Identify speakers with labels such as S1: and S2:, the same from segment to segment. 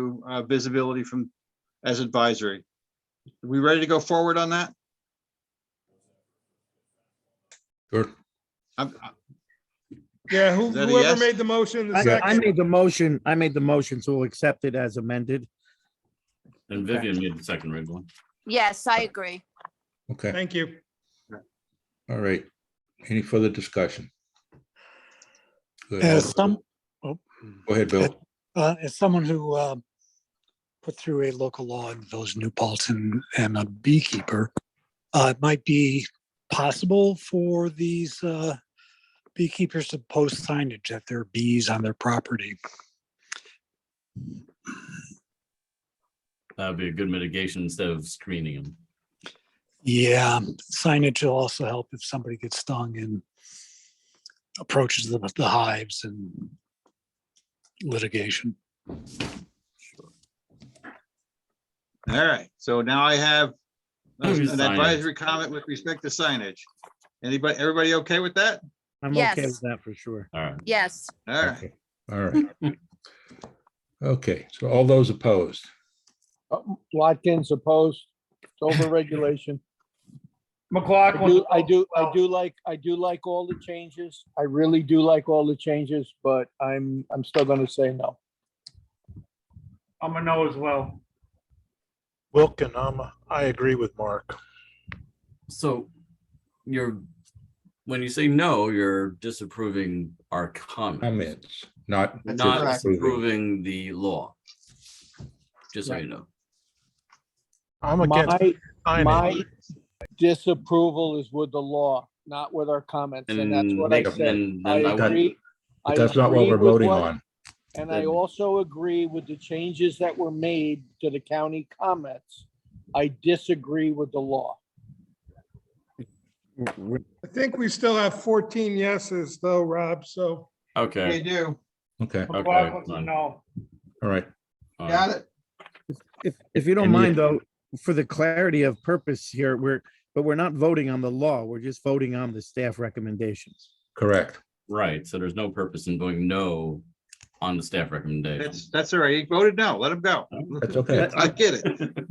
S1: to uh, visibility from, as advisory. We ready to go forward on that?
S2: Sure.
S1: I'm- I-
S3: Yeah, who-
S1: Is that a
S3: whoever
S1: yes?
S3: made the motion, the
S4: I, I
S3: second.
S4: made the motion, I made the motion, so we'll accept it as amended.
S5: And
S4: Okay.
S5: Vivian made the second red one.
S6: Yes, I agree.
S2: Okay,
S3: Thank you.
S2: all right. Any further discussion? Go ahead,
S7: As some, oh,
S2: Go ahead, Bill.
S7: uh, as someone who, uh, put through a local law in Village of New Paltz and a beekeeper, uh, it might be possible for these, uh, beekeepers to post signage that there are bees on their property.
S5: That'd be a good mitigation instead of screening them.
S7: Yeah, signage will also help if somebody gets stung and approaches the, the hives and litigation.
S1: All right, so now I have an
S5: Signage.
S1: advisory comment with respect to signage. Anybody, everybody okay with that?
S4: I'm okay
S6: Yes.
S4: with that for sure.
S5: All right.
S6: Yes,
S1: All right,
S2: Okay, All right. Okay, so all those opposed?
S8: Watkins opposed, it's overregulation. I
S3: McLaughlin.
S8: do, I do, I do like, I do like all the changes. I really do like all the changes, but I'm, I'm still gonna say no.
S3: I'm a no as well.
S9: Wilken, um, I agree with Mark.
S5: So you're, when you say no, you're disapproving our
S8: Um,
S5: comment,
S2: Comments, not.
S5: not
S1: correct.
S5: approving the law. Just so you know.
S9: I'm against
S8: My, my
S9: signage.
S8: disapproval is with the law, not with our comments, and that's
S5: And
S8: what I
S5: they-
S8: said.
S5: then-
S8: I
S5: then I wouldn't-
S8: agree. I
S2: But that's not what
S8: agree
S2: we're
S8: with
S2: voting
S8: what-
S2: on.
S8: And I
S5: Then-
S8: also agree with the changes that were made to the county comments. I disagree with the law.
S3: I think we still have 14 yeses though, Rob, so.
S1: they
S5: Okay.
S1: do,
S2: Okay,
S5: Okay,
S3: McLaughlin's a
S5: fine.
S3: no.
S2: all right.
S5: all right.
S1: got it?
S4: If, if you don't
S2: And you-
S4: mind though, for the clarity of purpose here, we're, but we're not voting on the law, we're just voting on the staff recommendations.
S2: Correct.
S5: Right. So there's no purpose in going no on the staff recommendation.
S1: That's, that's all right, he voted no, let him go.
S2: That's okay.
S1: I get it.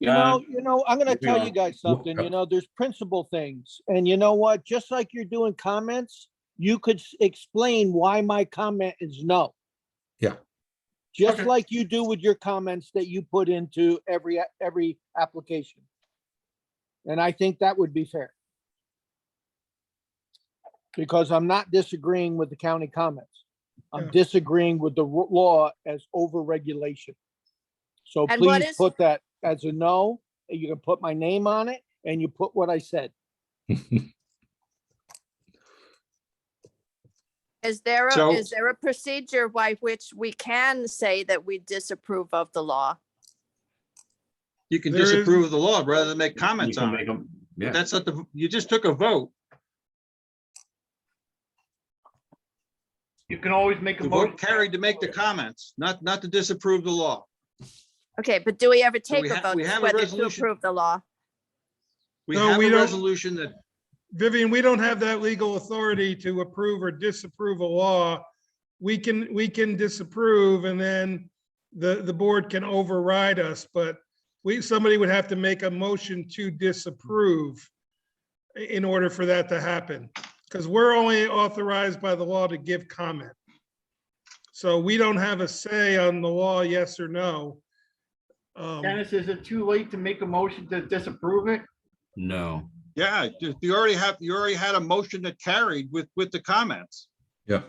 S8: You know, you know, I'm gonna
S5: Uh, we
S8: tell
S5: are.
S8: you guys something, you know, there's principle things, and you know what, just like you're doing comments, you could s- explain why my comment is no.
S2: Yeah.
S8: Just
S5: Okay.
S8: like you do with your comments that you put into every, a- every application. And I think that would be fair. Because I'm not disagreeing with the county comments. I'm
S3: Yeah.
S8: disagreeing with the ru- law as overregulation. So
S6: And what
S8: please
S6: is-
S8: put that as a no, and you can put my name on it, and you put what I said.
S6: is there, a
S1: So-
S6: is there a procedure by which we can say that we disapprove of the law?
S1: You can
S3: There is-
S1: disapprove of the law rather than make
S5: You
S1: comments
S5: can
S1: on it.
S5: make 'em-
S1: But
S5: Yeah,
S1: That's not the, you just took a vote.
S3: You can always make
S1: The vote carried to make the comments, not, not to disapprove the law.
S6: Okay, but do we ever take
S1: we
S6: a
S1: ha-
S6: vote
S1: we have a
S6: whether to
S1: resolution.
S6: approve the law?
S1: We
S3: No,
S1: have
S3: we
S1: a
S3: don't-
S1: resolution that,
S3: Vivian, we don't have that legal authority to approve or disapprove a law. We can, we can disapprove and then the, the board can override us, but we, somebody would have to make a motion to disapprove i- in order for that to happen, because we're only authorized by the law to give comment. So we don't have a say on the law, yes or no. Um,
S10: Dennis, is it too late to make a motion to disapprove it?
S5: no.
S1: yeah, you you already have, you already had a motion that carried with, with the comments.
S2: Yeah,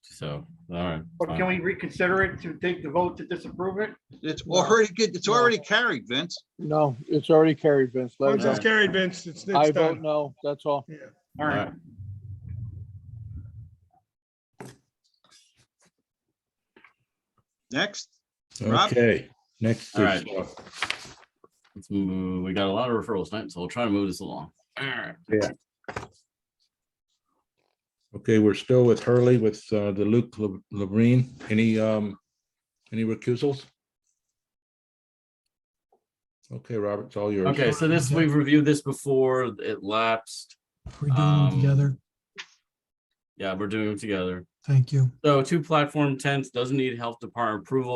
S5: So, all right.
S10: Or
S5: fine.
S10: can we reconsider it to take the vote to disapprove it?
S1: It's already, good. it's already carried, Vince.
S8: No, it's already carried, Vince. Let
S3: Once
S8: it
S3: it's
S8: go.
S3: carried, Vince, it's, it's
S8: I vote
S3: done.
S8: no, that's all.
S3: Yeah.
S10: All right.
S1: Next, Rob?
S2: okay, next.
S5: All
S2: is,
S5: right.
S2: uh,
S5: Let's move, uh, we got a lot of referrals tonight, so we'll try to move this along. All right.
S2: Okay, we're still with Hurley with uh, the Luke Labrine. Any, um, any recusals? Okay, Robert, it's all yours.
S5: Okay, so this, we've reviewed this before, it lapsed.
S10: We're
S5: doing them Um, together. Yeah, we're doing them together.
S10: Thank you.
S5: So two platform tents doesn't need health department approval.